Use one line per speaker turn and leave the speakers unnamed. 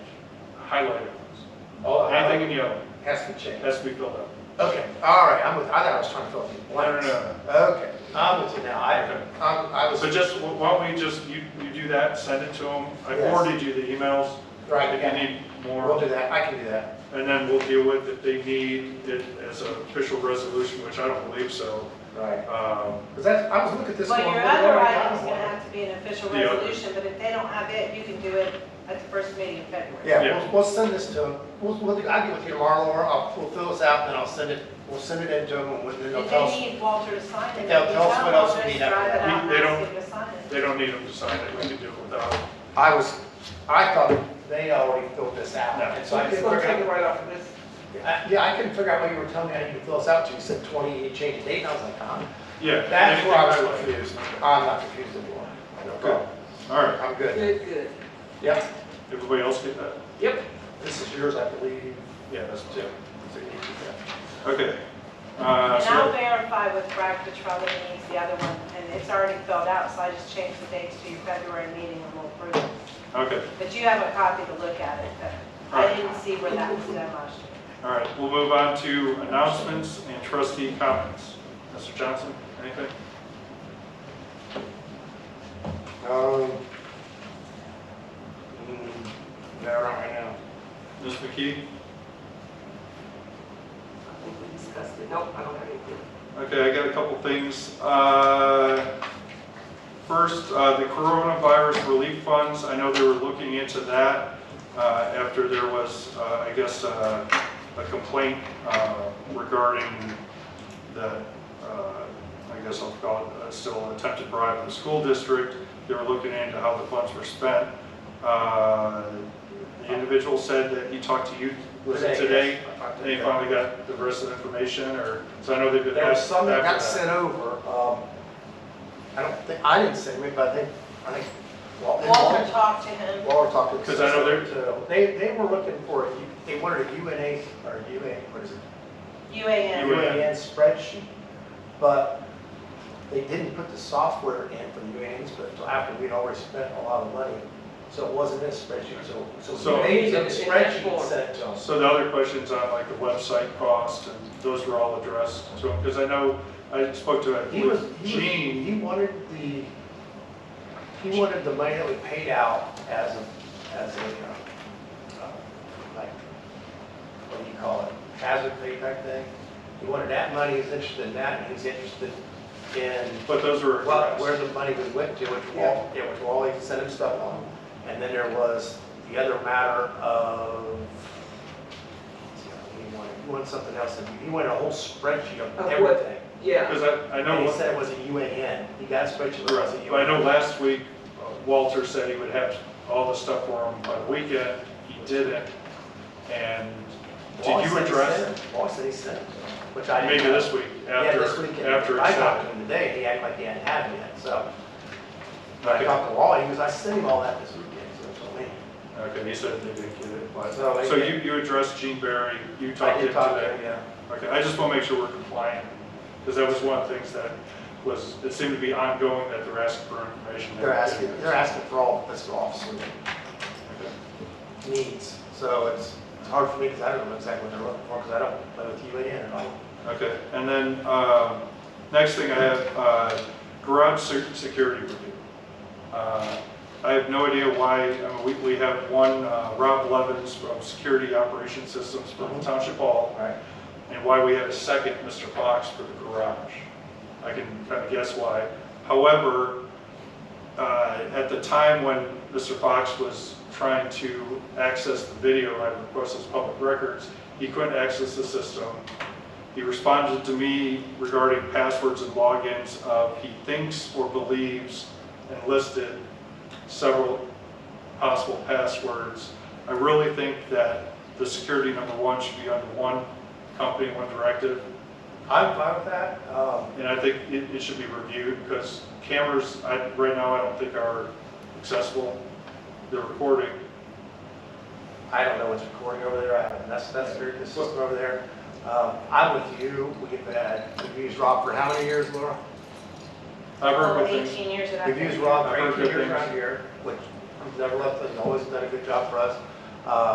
highlighted ones.
Oh,
Anything in yellow
Has to be changed.
has to be filled out.
Okay, all right, I'm with, I thought I was trying to fill in the
No, no,
blanks.
no.
Okay, I'm with you now, I,
Okay.
I'm- I was,
So just, why don't we just, you, you do that, send it to them. I
Yes.
forwarded you the emails.
Right,
If
yeah.
you need
we'll
more,
do that, I can do that.
and then we'll deal with if they need it as an official resolution, which I don't believe so.
Right.
Um,
Because that's, I was looking at this
Well,
going,
your
we've
other
already
item's
gotten
gonna
one.
have to be an official
The other.
resolution, but if they don't have it, you can do it at the first meeting in February.
Yeah,
Yeah.
we'll, we'll send this to them, we'll, we'll, I'll get with you tomorrow, Laura, I'll, we'll fill this out, and then I'll send it, we'll send it in to them, and then they'll
If
tell
they
us.
need Walter to sign it, if you
They'll
tell
tell us what else we
Walter to
need
drive it
after
out
that.
and
They
ask
don't-
him to sign it.
They don't need them to sign it, we can do it without. them.
I was, I thought they already filled this out,
No.
and so I
Just
couldn't
gonna
figure
take it
out.
right off of this.
I- Yeah, I couldn't figure out what you were telling me I need to fill this out to, you said twenty, you changed the date, and I was like, huh?
Yeah.
That's where I
anything
was
highlighted.
confused,
Okay.
I'm not confused anymore, no problem,
All right,
I'm good,
Good, good.
yep,
everybody else get that?
Yep.
this is yours, I believe,
Yeah, that's
too.
two. Okay. Uh,
And I'll
so,
verify with Brad Petrella that needs the other one, and it's already filled out, so I just changed the dates to your February meeting and we'll approve it.
okay,
But you have a copy to look at it, but I
Right.
didn't see where that was done last year.
all right, we'll move on to announcements and trustee comments. Mr. Johnson, anything?
Um, mm, no, not right now.
Ms. McKee?
I think we discussed it. Nope, I don't have anything.
Okay, I got a couple things. Uh, First, uh, the coronavirus relief funds, I know they were looking into that uh, after there was, uh, I guess, uh, a complaint uh, regarding the, uh, I guess I'll call it, uh, still attempted bribe in the school district. They were looking into how the funds were spent. Uh, The individual said that he talked to you today. They finally got the rest of the information, or, so I know they've been
There was
asked
some that got
after that.
sent over, um, I don't think, I didn't send it, but I think, I think. Wal-
Walter talked to him.
Walter talked to.
'Cause I know they're-
So, They, they were looking for, a U- they wanted a UNA, or UA, what is it?
UAN.
You- UAN.
UAN spreadsheet, but they didn't put the software in for the UAN spreadsheet until after we'd already spent a lot of money. So it wasn't in a spreadsheet, so, so
So-
we made a
It's in that
spreadsheet and
form.
sent it to them.
So the other questions on like the website cost, and those were all addressed to him, because I know, I spoke to, I
He was,
believe,
he was-
Gene.
he wanted the, he wanted the money that we paid out as a, as a, uh, uh, like, what do you call it? Hazard pay type thing. He wanted that money, he's interested in that, and he's interested in
But those were
what, where
addressed.
the money was went to, which
Yeah.
Walt, yeah, which Wally sent him stuff on. And then there was the other matter of, he wanted, he wanted something else, and he wanted a whole spreadsheet
Of
of
what-
everything.
Yeah.
Because I, I
And
know,
he said it was a UAN. He got a spreadsheet, it was a
correct, but I know
UAN.
last week uh, Walter said he would have all the stuff for him by the weekend, he didn't. And
Wally
did you
said he
address,
sent it. Wally said he sent it, which I
maybe
didn't. know.
this week,
Yeah, this
after,
weekend.
after
I
it's
talked
out?
to him today, he acted like he hadn't had it yet, so. When I
Okay.
talked to Wally, he goes, I sent him all that this weekend, so it's on me.
Okay, he said they didn't get it, but,
So they
so you,
did.
you addressed Gene Berry, you
I
talked to
did
him
talk to
today?
him, yeah.
Okay, I just want to make sure we're compliant, because that was one of the things that was, it seemed to be ongoing that they're asking for information.
They're asking, they're asking for all fiscal officer
Okay.
needs, so it's, it's hard for me because I don't know exactly what they're looking for, because I don't play with UAN at all.
Okay, and then, um, next thing I have, uh, garage se- security review. Uh, I have no idea why, I mean, we, we have one, uh, Rob Levens from Security Operations Systems from Township Hall,
Right.
and why we have a second Mr. Fox for the garage. I can kind of guess why. However, uh, at the time when Mr. Fox was trying to access the video, I requested public records, he couldn't access the system. He responded to me regarding passwords and logins of he thinks or believes and listed several possible passwords. I really think that the security number one should be under one company, one directive.
I'm fine with that, um,
And I think it, it should be reviewed because cameras, I, right now, I don't think are accessible. They're recording.
I don't know what's recording over there, I haven't, that's, that's their, the system over there. Um, I'm with you, we've had, we've used Rob for how many years, Laura?
I've heard
Oh,
good things.
18 years of that.
We've used Rob
I've
for
heard
eighteen
good
years around
things.
here, which he's never left us, always done a good job for us. Uh,